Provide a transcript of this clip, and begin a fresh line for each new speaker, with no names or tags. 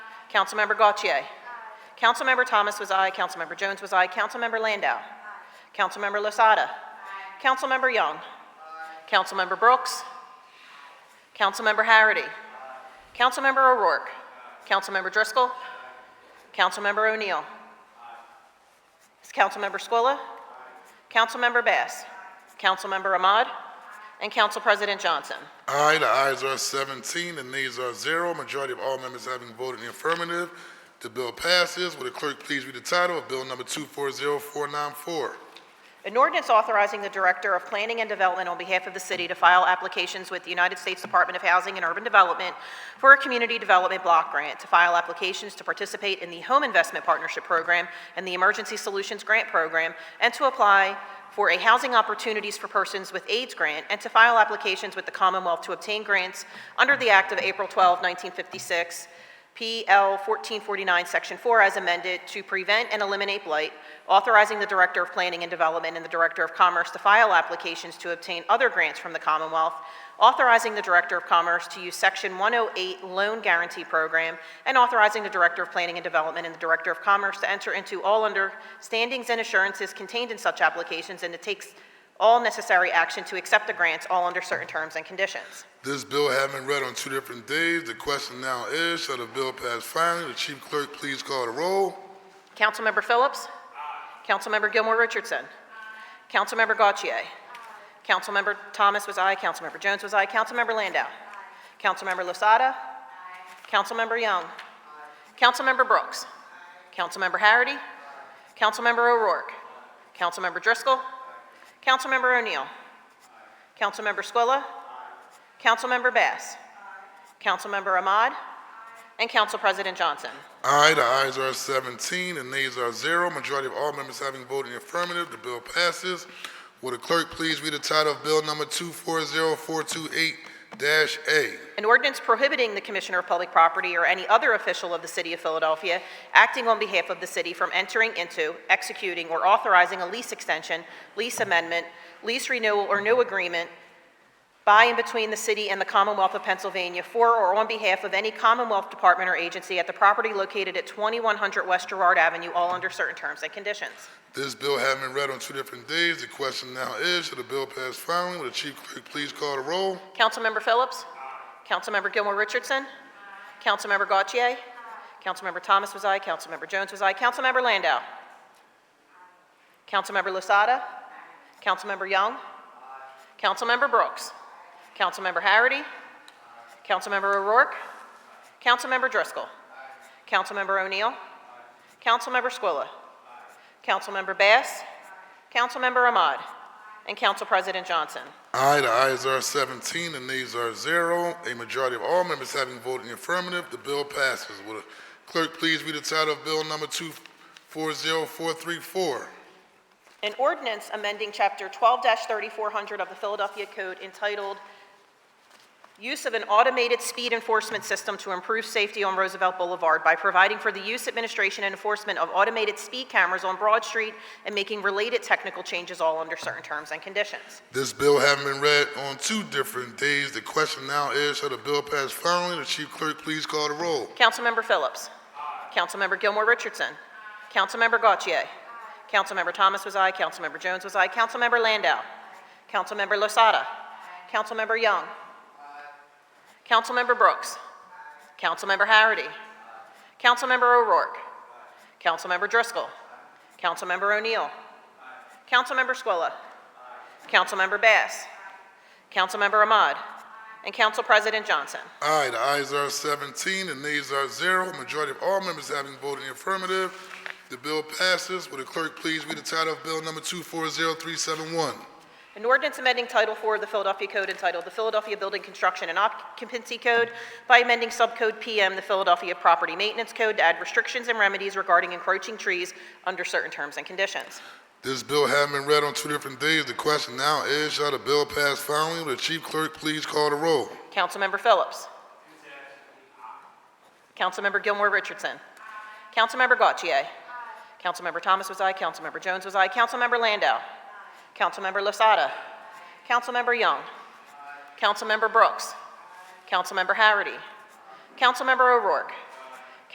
Councilmember Gautier. Councilmember Thomas was aye. Councilmember Jones was aye. Councilmember Landau. Councilmember Losada. Councilmember Young. Councilmember Brooks. Councilmember Harity. Councilmember O'Rourke. Councilmember Driscoll. Councilmember O'Neill. Is Councilmember Squilla? Councilmember Bass? Councilmember Ahmad? And Council President Johnson.
Aye, the ayes are 17, the nays are zero. Majority of all members having voted in the affirmative, the bill passes. Would the clerk please read the title of Bill Number 240494?
An ordinance authorizing the Director of Planning and Development on behalf of the city to file applications with the United States Department of Housing and Urban Development for a community development block grant, to file applications to participate in the Home Investment Partnership Program and the Emergency Solutions Grant Program, and to apply for a Housing Opportunities for Persons with AIDS grant, and to file applications with the Commonwealth to obtain grants under the Act of April 12, 1956, PL 1449, Section 4, as amended, to prevent and eliminate blight, authorizing the Director of Planning and Development and the Director of Commerce to file applications to obtain other grants from the Commonwealth, authorizing the Director of Commerce to use Section 108 Loan Guarantee Program, and authorizing the Director of Planning and Development and the Director of Commerce to enter into all understandings and assurances contained in such applications and to take all necessary action to accept the grants, all under certain terms and conditions.
This bill having been read on two different days, the question now is, shall the bill pass finally? The chief clerk please call the roll.
Councilmember Phillips? Councilmember Gilmore Richardson? Councilmember Gautier? Councilmember Thomas was aye, Councilmember Jones was aye, Councilmember Landau? Councilmember Losada? Councilmember Young? Councilmember Brooks? Councilmember Harity? Councilmember O'Rourke? Councilmember Driscoll? Councilmember O'Neill? Councilmember Squilla? Councilmember Bass? Councilmember Ahmad? And Council President Johnson.
Aye, the ayes are 17, the nays are zero. Majority of all members having voted in the affirmative, the bill passes. Would the clerk please read the title of Bill Number 240428-A?
An ordinance prohibiting the Commissioner of Public Property or any other official of the City of Philadelphia acting on behalf of the city from entering into, executing, or authorizing a lease extension, lease amendment, lease renewal, or new agreement by and between the city and the Commonwealth of Pennsylvania for or on behalf of any Commonwealth department or agency at the property located at 2100 West Gerard Avenue, all under certain terms and conditions.
This bill having been read on two different days, the question now is, should the bill pass finally? Will the chief clerk please call the roll?
Councilmember Phillips? Councilmember Gilmore Richardson? Councilmember Gautier? Councilmember Thomas was aye, Councilmember Jones was aye, Councilmember Landau? Councilmember Lasada? Councilmember Young? Councilmember Brooks? Councilmember Harity? Councilmember O'Rourke? Councilmember Driscoll? Councilmember O'Neill? Councilmember Squilla? Councilmember Bass? Councilmember Ahmad? And Council President Johnson.
Aye, the ayes are 17, the nays are zero. A majority of all members having voted in the affirmative, the bill passes. Will the clerk please read the title of Bill Number 240434?
An ordinance amending Chapter 12-3400 of the Philadelphia Code entitled Use of an Automated Speed Enforcement System to Improve Safety on Roosevelt Boulevard by providing for the use, administration, and enforcement of automated speed cameras on Broad Street and making related technical changes all under certain terms and conditions.
This bill having been read on two different days, the question now is, shall the bill pass finally? The chief clerk please call the roll.
Councilmember Phillips. Councilmember Gilmore Richardson. Councilmember Gautier. Councilmember Thomas was aye. Councilmember Jones was aye. Councilmember Landau. Councilmember Losada. Councilmember Young. Councilmember Brooks. Councilmember Harity. Councilmember O'Rourke. Councilmember Driscoll. Councilmember O'Neill. Councilmember Squilla. Councilmember Bass. Councilmember Ahmad. And Council President Johnson.
Aye, the ayes are 17, the nays are zero. Majority of all members having voted in the affirmative, the bill passes. Will the clerk please read the title of Bill Number 240371?
An ordinance amending Title IV of the Philadelphia Code entitled The Philadelphia Building Construction and Occupancy Code by amending Subcode PM, the Philadelphia Property Maintenance Code, to add restrictions and remedies regarding encroaching trees under certain terms and conditions.
This bill having been read on two different days, the question now is, shall the bill pass finally? Will the chief clerk please call the roll?
Councilmember Phillips. Councilmember Gilmore Richardson. Councilmember Gautier. Councilmember Thomas was aye, Councilmember Jones was aye, Councilmember Landau. Councilmember Lasada. Councilmember Young. Councilmember Brooks. Councilmember Harity. Councilmember O'Rourke.